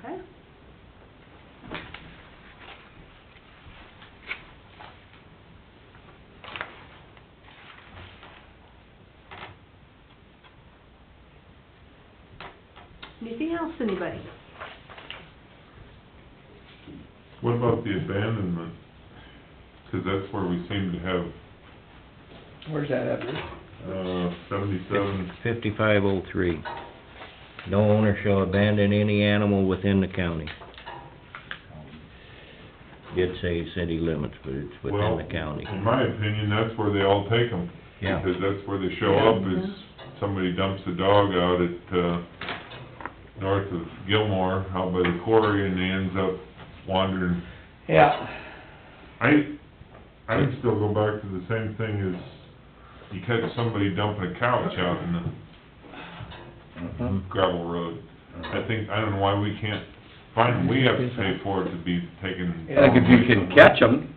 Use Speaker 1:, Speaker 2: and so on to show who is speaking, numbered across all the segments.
Speaker 1: Okay. Anything else, anybody?
Speaker 2: What about the abandonment? 'Cause that's where we seem to have,
Speaker 3: Where's that at?
Speaker 2: uh, seventy-seven,
Speaker 4: Fifty-five oh three. No owner shall abandon any animal within the county. Did say city limits, but it's within
Speaker 2: well, uh-huh.
Speaker 4: the county.
Speaker 2: in my opinion, that's where they all take them.
Speaker 4: Yeah.
Speaker 2: Because that's where they show up, is somebody dumps a dog out at, uh, north of Gilmore, out by the quarry, and he ends up wandering.
Speaker 3: Yeah,
Speaker 2: I, I would still go back to the same thing as, you catch somebody dumping a couch out in the
Speaker 4: Mhm.
Speaker 2: gravel road. I think, I don't know why we can't find, we have to pay for it to be taken.
Speaker 3: Yeah.
Speaker 5: Like if you can catch them,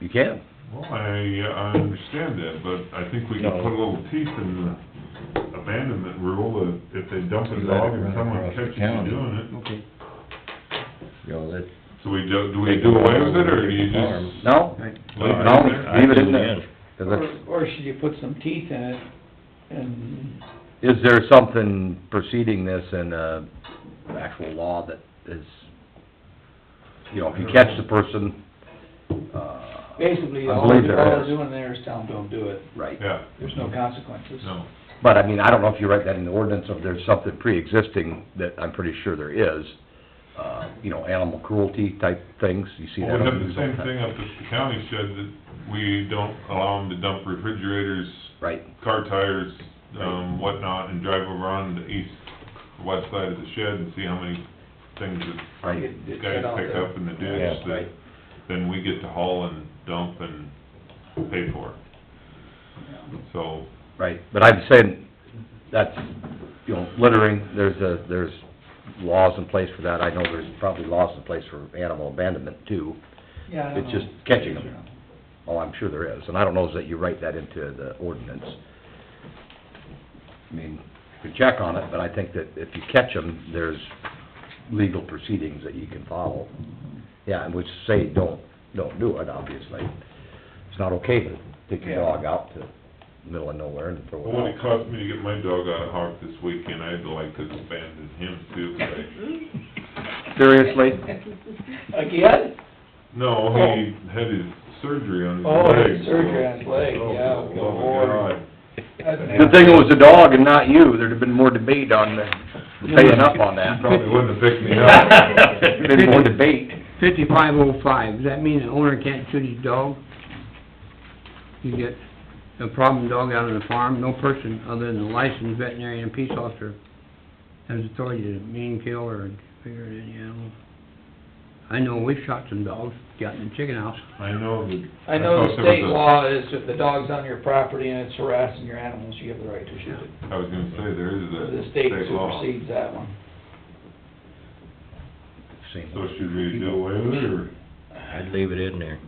Speaker 5: you can.
Speaker 2: Well, I, I understand that, but I think we can put a little teeth in the abandonment rule, that if they dump a dog and someone catches you doing it.
Speaker 4: Okay. Yeah, that's.
Speaker 2: So we do, do we do away with it, or do you
Speaker 4: Farm.
Speaker 2: just?
Speaker 5: No?
Speaker 2: Leave it
Speaker 5: No,
Speaker 2: in there?
Speaker 5: leave it in
Speaker 4: I
Speaker 5: there.
Speaker 4: think,
Speaker 5: 'Cause
Speaker 3: or,
Speaker 5: that's-
Speaker 3: or should you put some teeth in it and,
Speaker 5: Is there something preceding this in, uh, actual law that is, you know, if you catch the person, uh...
Speaker 3: basically,
Speaker 5: I
Speaker 3: all all
Speaker 5: believe there
Speaker 3: they're
Speaker 5: is.
Speaker 3: doing there is tell them, don't do it.
Speaker 5: Right.
Speaker 2: Yeah,
Speaker 3: There's no consequences.
Speaker 2: no,
Speaker 5: But I mean, I don't know if you write that in the ordinance, or if there's something pre-existing that I'm pretty sure there is. Uh, you know, animal cruelty type things, you see
Speaker 2: well,
Speaker 5: that.
Speaker 2: we have
Speaker 5: on
Speaker 2: the
Speaker 5: news all
Speaker 2: same
Speaker 5: time.
Speaker 2: thing up at the county shed, that we don't allow them to dump refrigerators,
Speaker 5: Right,
Speaker 2: car tires, um, whatnot, and drive over on the east, west side of the shed and see how many things that
Speaker 5: right.
Speaker 2: these
Speaker 3: Get-
Speaker 2: guys
Speaker 3: get out
Speaker 2: pick
Speaker 3: there.
Speaker 2: up in the ditch
Speaker 4: Yeah,
Speaker 2: that,
Speaker 5: right.
Speaker 2: then we get to haul and dump and pay for it. So,
Speaker 5: Right, but I'm saying, that's, you know, littering, there's a, there's laws in place for that, I know there's probably laws in place for animal abandonment too.
Speaker 3: Yeah, I don't
Speaker 5: It's just
Speaker 3: know.
Speaker 5: catching 'em. Oh, I'm sure there is, and I don't know that you write that into the ordinance. I mean, you can check on it, but I think that if you catch them, there's legal proceedings that you can follow. Yeah, and which say, don't, don't do it, obviously. It's not okay to take your
Speaker 3: Yeah.
Speaker 5: dog out to the middle of nowhere and throw it out.
Speaker 2: well, what it cost me to get my dog out of Hawk this weekend, I'd like to abandon him too, but I-
Speaker 5: Seriously?
Speaker 3: Again?
Speaker 2: no, he had his surgery on his leg.
Speaker 3: Oh, he had surgery
Speaker 2: so-
Speaker 3: on his leg,
Speaker 2: so,
Speaker 3: yeah,
Speaker 2: oh,
Speaker 3: good
Speaker 2: my
Speaker 3: lord.
Speaker 2: God.
Speaker 5: Good thing it was the dog and not you, there'd have been more debate on the, paying up on that.
Speaker 2: Probably wouldn't have picked me up.
Speaker 5: Been more debate.
Speaker 6: Fifty-five oh five, does that mean the owner can't shoot his dog? You get a problem dog out on the farm, no person other than a licensed veterinarian and peace officer has authority to mean kill or figure any animal. I know we've shot some dogs, got in the chicken house.
Speaker 2: I know that.
Speaker 3: I know
Speaker 2: thought
Speaker 3: the
Speaker 2: there
Speaker 3: state
Speaker 2: was a-
Speaker 3: law is if the dog's on your property and it's harassing your animals, you have the right to shoot it.
Speaker 2: I was gonna say, there is
Speaker 3: The
Speaker 2: a
Speaker 3: state
Speaker 2: law.
Speaker 3: supersedes that one.
Speaker 2: So should we do away with it, or?
Speaker 4: I'd leave it in there,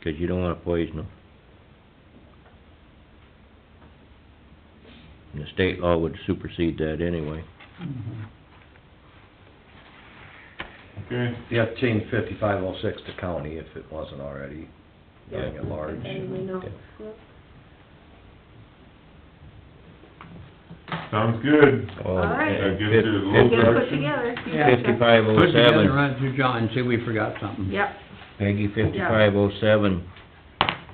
Speaker 4: 'cause you don't wanna poison them. And the state law would supersede that anyway.
Speaker 2: Okay,
Speaker 5: You have to change fifty-five oh six to county if it wasn't already, young at large.
Speaker 1: And we know.
Speaker 2: sounds good.
Speaker 4: All
Speaker 1: right.
Speaker 2: That gives you a little
Speaker 1: Get it put
Speaker 2: direction.
Speaker 1: together.
Speaker 3: Yeah.
Speaker 4: Fifty-five
Speaker 6: Put
Speaker 4: oh
Speaker 6: it together, and
Speaker 4: seven,
Speaker 6: run it through John, and see if we forgot something.
Speaker 1: Yep,
Speaker 4: Peggy, fifty-five oh seven,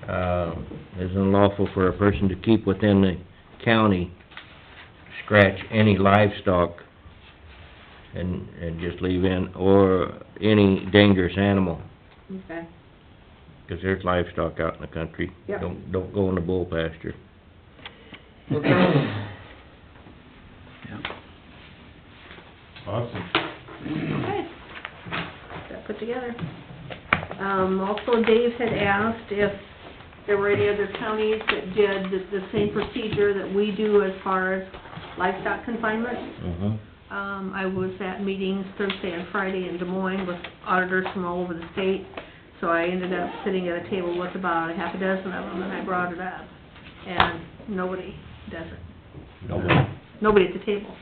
Speaker 4: uh, is unlawful for a person to keep within the county, scratch any livestock, and, and just leave in, or any dangerous animal.
Speaker 1: okay.
Speaker 4: 'Cause there's livestock out in the country.
Speaker 1: Yeah.
Speaker 4: Don't, don't go in the bull pasture.
Speaker 2: Awesome.
Speaker 1: Okay. Got put together. Um, also Dave had asked if there were any other counties that did the, the same procedure that we do as far as livestock confinement.
Speaker 4: Mm-hmm.
Speaker 1: Um, I was at meetings Thursday and Friday in Des Moines with auditors from all over the state, so I ended up sitting at a table with about a half a dozen of them, and I brought it up. And nobody does it.
Speaker 5: No,
Speaker 1: Nobody at the table.